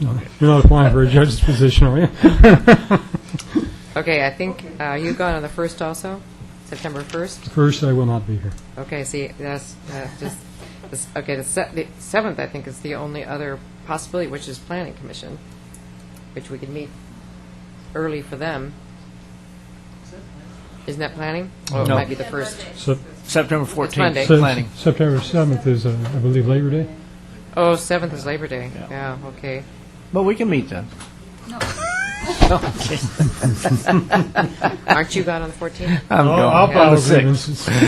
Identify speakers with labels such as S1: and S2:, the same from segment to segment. S1: You're not applying for a judge's position, are you?
S2: Okay, I think uh, you gone on the 1st also, September 1st?
S1: First, I will not be here.
S2: Okay, see, that's, that's just, this- okay, the se- the 7th, I think, is the only other possibility, which is Planning Commission, which we could meet early for them. Isn't that planning? Oh, it
S3: No.
S2: might be the 1st.
S1: Sep-
S3: September 14th.
S2: Monday.
S1: Sep-
S3: Planning.
S1: September 7th is, uh, I believe, Labor Day.
S2: Oh, 7th is Labor Day.
S3: Yeah.
S2: Yeah, okay.
S3: But we can meet then.
S2: Aren't you gone on the 14th?
S3: I'm going.
S2: I'll
S3: on the
S1: File
S3: 6th.
S1: grievances.
S2: Yeah,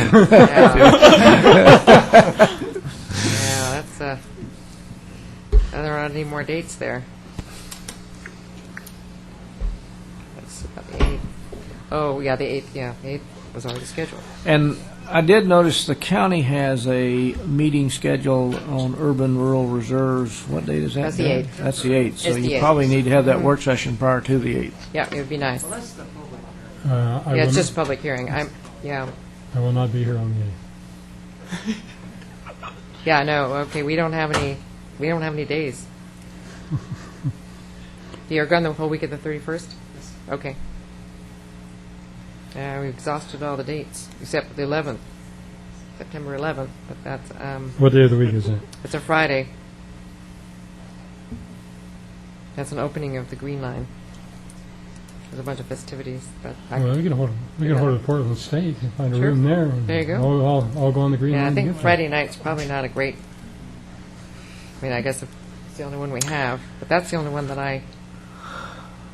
S2: Yeah, that's, uh, there aren't any more dates there. That's about the 8th. Oh, yeah, the 8th, yeah, the 8th was already scheduled.
S3: And I did notice the county has a meeting scheduled on urban rural reserves. What date is that?
S2: That's the
S3: Dan?
S2: 8th.
S3: That's the 8th. So
S2: It's the
S3: you
S2: 8th.
S3: probably need to have that work session prior to the 8th.
S2: Yeah, it would be nice.
S1: Uh, I
S2: Yeah,
S1: will-
S2: it's just a public hearing. I'm, yeah,
S1: I will not be here on the 8th.
S2: yeah, no, okay, we don't have any, we don't have any days. You're gone the whole week of the 31st? Okay. Uh, we exhausted all the dates, except for the 11th, September 11th, but that's, um,
S1: What day of the week is it?
S2: It's a Friday. That's an opening of the Green Line. There's a bunch of festivities, but I,
S1: Well, we can hold, we can hold it at Portland State and find a
S2: Sure.
S1: room there. and
S2: There you go.
S1: I'll- I'll, I'll go on the green
S2: yeah,
S1: line.
S2: I
S1: to
S2: think
S1: get there.
S2: Friday night's probably not a great. I mean, I guess it's the only one we have, but that's the only one that I.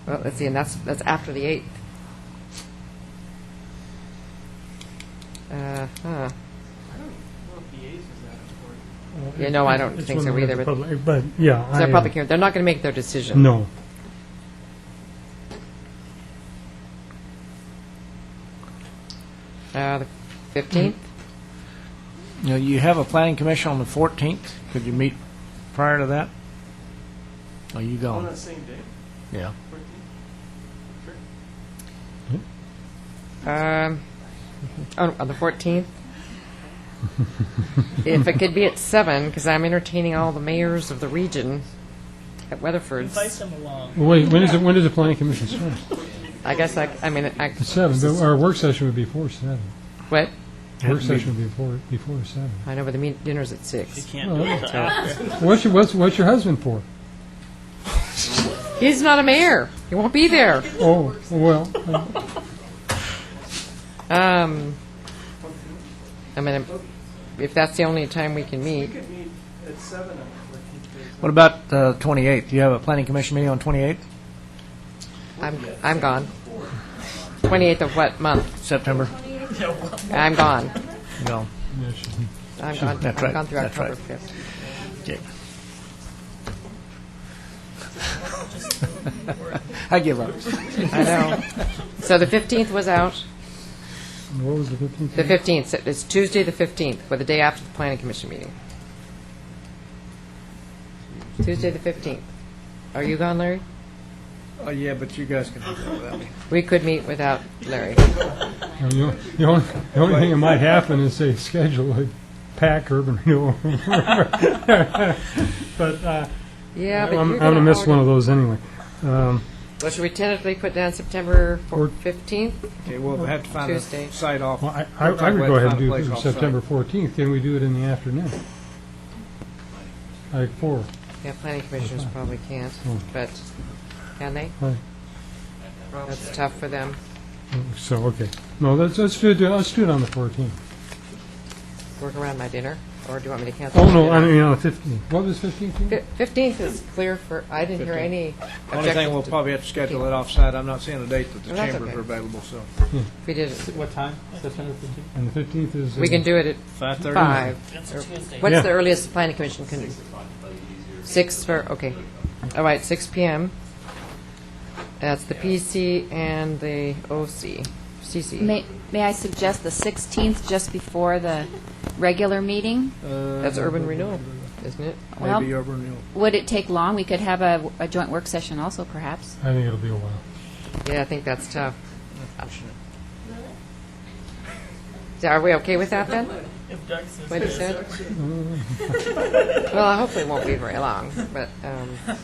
S2: Well, let's see, and that's that's after the eighth. Uh huh. Yeah, no, I don't
S1: It's
S2: think
S1: when
S2: so
S1: we have the
S2: either, but-
S1: public- But, yeah.
S2: So they're
S1: I, uh,
S2: public hearing. They're not going to make their decision.
S1: No.
S2: Uh, the fifteenth.
S3: Now, you have a planning commission on the 14th. Could you meet prior to that? Are you
S4: On
S3: going?
S4: that same day,
S3: Yeah.
S4: 14th?
S2: Um, oh, on, on the 14th? If it could be at 7, because I'm entertaining all the mayors of the region at Weatherford's.
S5: Invite them along.
S1: Well, Wait, when is it, when does the planning commission start?
S2: I guess I, I mean, I,
S1: At seven, but our work session would be before seven.
S2: what?
S1: Work session would be before, before seven.
S2: I know, but the meet, dinner's at
S5: You
S2: 6.
S5: can't do it till after.
S1: What's your, what's, what's your husband for?
S2: He's not a mayor. He won't be there.
S1: Oh, well, uh,
S2: Um, I mean, if that's the only time we can
S4: We
S2: meet,
S4: could meet at 7 on the 14th. day.
S3: What about the 28th? Do you have a planning commission meeting on 28th?
S2: I'm, I'm gone. 28th of what month?
S3: September?
S2: I'm gone.
S3: No.
S1: yeah, she-
S2: I'm gone, I'm
S3: That's right.
S2: gone through
S3: That's right.
S2: October 5th.
S3: I give up.
S2: I know. So the 15th was out.
S1: what was the fifteenth?
S2: The 15th, so it's Tuesday, the 15th, or the day after the planning commission meeting. Tuesday, the 15th. Are you gone, Larry?
S3: Oh, yeah, but you guys can do that without me.
S2: We could meet without Larry.
S1: The only, the only thing that might happen is they schedule a pack urban renewal. But, uh,
S2: Yeah,
S1: I'm,
S2: but you're
S1: I'm
S2: going to...
S1: gonna miss one of those anyway. Um,
S2: Well, should we tentatively put down September
S1: Or-
S2: 15th?
S3: Okay, we'll have to find a
S2: Tuesday.
S3: site off.
S1: well, I, I
S3: We'll
S1: I
S3: talk
S1: would
S3: about
S1: go ahead and
S3: finding
S1: do
S3: a
S1: it
S3: place off-site.
S1: September fourteenth, can we do it in the afternoon? Like four,
S2: Yeah, planning commissioners probably can't, but can they?
S1: Oh. Right.
S2: That's tough for them.
S1: so, okay. No, let's, let's do, it- let's do it on the fourteenth.
S2: Work around my dinner, or do you want me to cancel?
S1: Oh,
S2: my
S1: no,
S2: dinner?
S1: I mean, on the fifteenth. What was fifteenth?
S2: Fif- 15th is clear for, I didn't hear any
S3: Only thing,
S2: objection
S3: we'll
S2: to-
S3: probably have to schedule it off-site. I'm not seeing a date that the
S2: Well, that's
S3: chambers
S2: okay.
S3: are available, so.
S2: if we did it.
S5: What time? September 15th?
S1: And the fifteenth is.
S2: We can do it at
S3: 5:30?
S2: 5.
S5: That's a Tuesday.
S2: Er, What's
S1: Yeah.
S2: the earliest the planning commission can do? Six for, okay. All right, six PM. That's the PC and the OC, CC.
S6: May, may I suggest the 16th, just before the regular meeting?
S2: That's urban renewal, isn't it?
S6: Well,
S3: Maybe urban renewal.
S6: Would it take long? We could have a, a joint work session also, perhaps.
S1: I think it'll be a while.
S2: Yeah, I think that's tough. Are we okay with that then?
S5: If Doug says
S2: What he
S5: yes.
S2: said? Well, hopefully it won't be very long, but, um.